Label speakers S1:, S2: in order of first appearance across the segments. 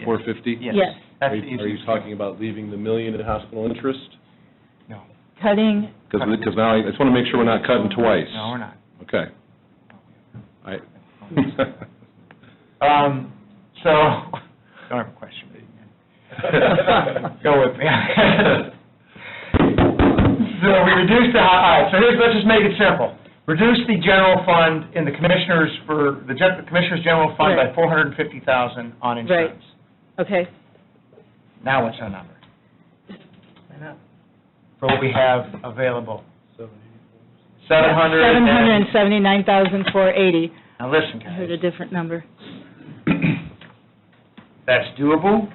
S1: At four fifty?
S2: Yes.
S3: Yes.
S1: Are
S2: That's the
S1: you are you
S2: easiest.
S1: talking about leaving the million in hospital interest?
S2: No,
S3: cutting,
S1: Because, now, I just want to make sure we're not cutting twice.
S2: no, we're not.
S1: Okay. I,
S2: Um, so, don't have a question. Go with me. So we reduced the, all right, so here's, let's just make it simple. Reduce the general fund in the commissioners for, the gen- the commissioners' general fund by
S3: Right.
S2: four hundred and fifty thousand on insurance.
S3: okay,
S2: Now what's our number? For what we have available. Seven hundred
S3: seven
S2: and...
S3: hundred and seventy-nine thousand four eighty.
S2: Now listen,
S3: I heard a
S2: guys.
S3: different number.
S2: That's doable.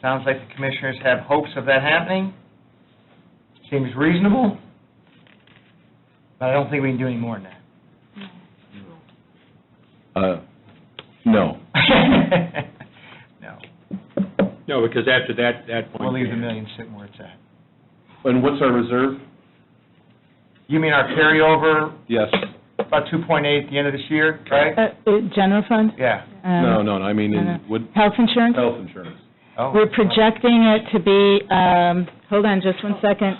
S2: Sounds like the commissioners have hopes of that happening. Seems reasonable. But I don't think we can do any more than
S1: uh, no.
S2: that. No,
S4: No, because after that, that point.
S2: we'll leave the million sitting where it's at.
S1: And what's our reserve?
S2: You mean our carryover,
S1: Yes.
S2: about two point eight at the end of this year, right?
S3: Uh, uh, General fund?
S2: Yeah.
S3: Um,
S1: No, no, I mean,
S3: uh,
S1: in, would,
S3: Health insurance?
S1: health insurance.
S2: Oh.
S3: We're projecting it to be, um, hold on just one second,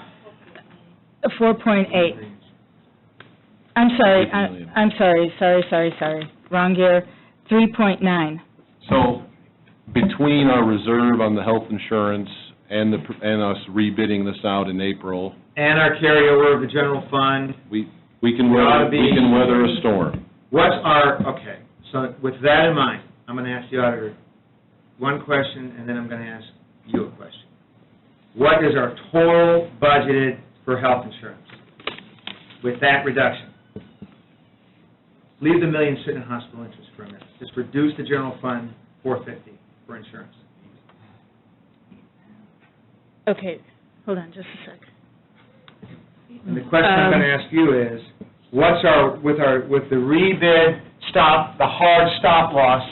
S3: 4.8. I'm sorry,
S1: Eight million.
S3: I- I'm sorry, sorry, sorry, sorry, wrong year, 3.9.
S1: So between our reserve on the health insurance and the, and us rebidding this out in April,
S5: and our carryover of the general fund,
S1: we, we can
S5: We ought
S1: weather,
S5: to be-
S1: we can weather a storm.
S5: what's our, okay, so with that in mind, I'm going to ask the auditor one question, and then I'm going to ask you a question. What is our total budgeted for health insurance with that reduction? Leave the million sitting in hospital interest for a minute, just reduce the general fund 450 for insurance.
S3: Okay, hold on just a second.
S5: And the question I'm going to ask you is, what's our, with our, with the rebid
S2: Stop, the hard stop loss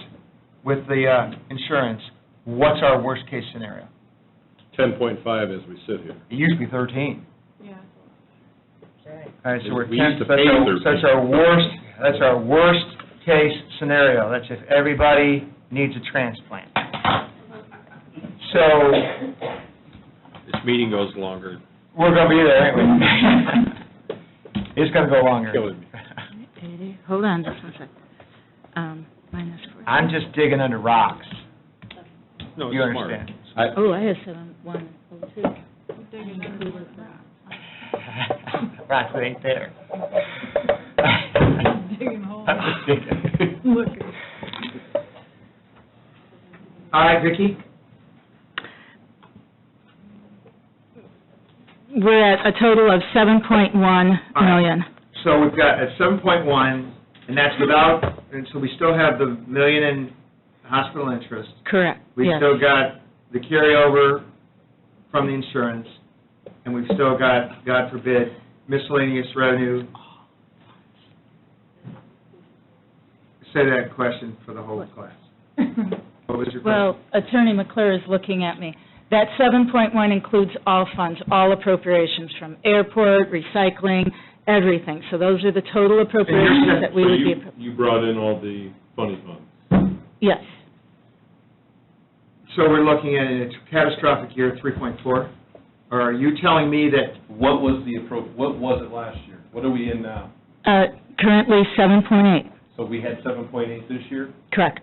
S2: with the uh, insurance, what's our worst-case scenario?
S1: Ten point five as we sit here.
S2: It used to be thirteen. All right, so we're
S1: We used to
S2: ten, so that's
S1: pay
S2: our,
S1: 13.
S2: so that's our worst, that's our worst-case scenario. That's if everybody needs a transplant. So,
S4: This meeting goes longer.
S2: we're gonna be there anyway. It's gonna go longer.
S4: Killing me.
S3: 80, hold on just one second. Um, Minus 4.
S2: I'm just digging under rocks.
S4: No, it's
S2: You
S4: smart.
S2: understand?
S3: Oh, I have oh, 7102.
S2: Rocks that ain't there.
S6: digging holes.
S2: I'm just digging.
S6: Look.
S5: All right, Vicki?
S3: We're at a total of 7.1
S5: All right.
S3: million.
S5: So we've got at seven point one, and that's without, and so we still have the million in hospital interest.
S3: Correct,
S5: We've
S3: yes.
S5: still got the carryover from the insurance, and we've still got, God forbid, miscellaneous revenue. Say that question for the whole class. What was your question?
S3: Well, Attorney McClure is looking at me. That 7.1 includes all funds, all appropriations from airport, recycling, everything. So those are the total appropriations that we would be, appro-
S1: you brought in all the funny funds?
S3: yes,
S5: So we're looking at a catastrophic year, three point four? Or are you telling me that
S1: What was the appro, what was it last year? What are we in now?
S3: Uh, currently 7.8,
S1: So we had seven point eight this year?
S3: correct.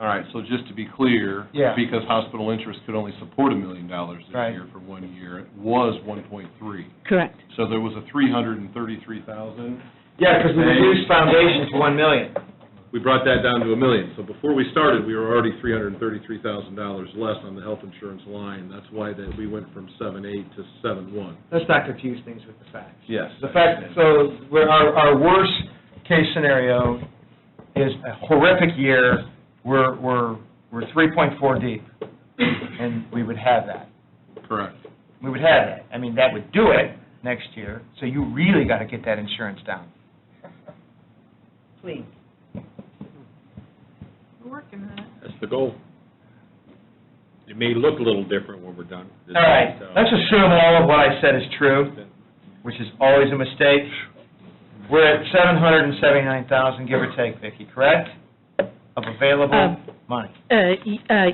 S1: All right, so just to be clear.
S2: Yeah.
S1: Because hospital interest could only support a million dollars this
S2: Right.
S1: year for one year, it was one point three.
S3: Correct.
S1: So there was a three hundred and thirty-three thousand.
S5: Yeah, because we reduced foundation to one million.
S1: We brought that down to a million. So before we started, we were already three hundred and thirty-three thousand dollars less on the health insurance line. That's why that we went from seven eight to seven one.
S5: Let's not confuse things with the facts.
S1: Yes.
S2: The fact, so, we're- our, our worst-case scenario is a horrific year, we're, we're, we're 3.4 deep, and we would have that.
S1: Correct.
S2: We would have that. I mean, that would do it next year, so you really got to get that insurance down.
S6: We're working on it.
S4: That's the goal. It may look a little different when we're done.
S2: All right, let's assume all of what I said is true, which is always a mistake. We're at 779,000, give or take, Vicki, correct? Of available
S3: Um,
S2: money.
S3: Uh, y- uh,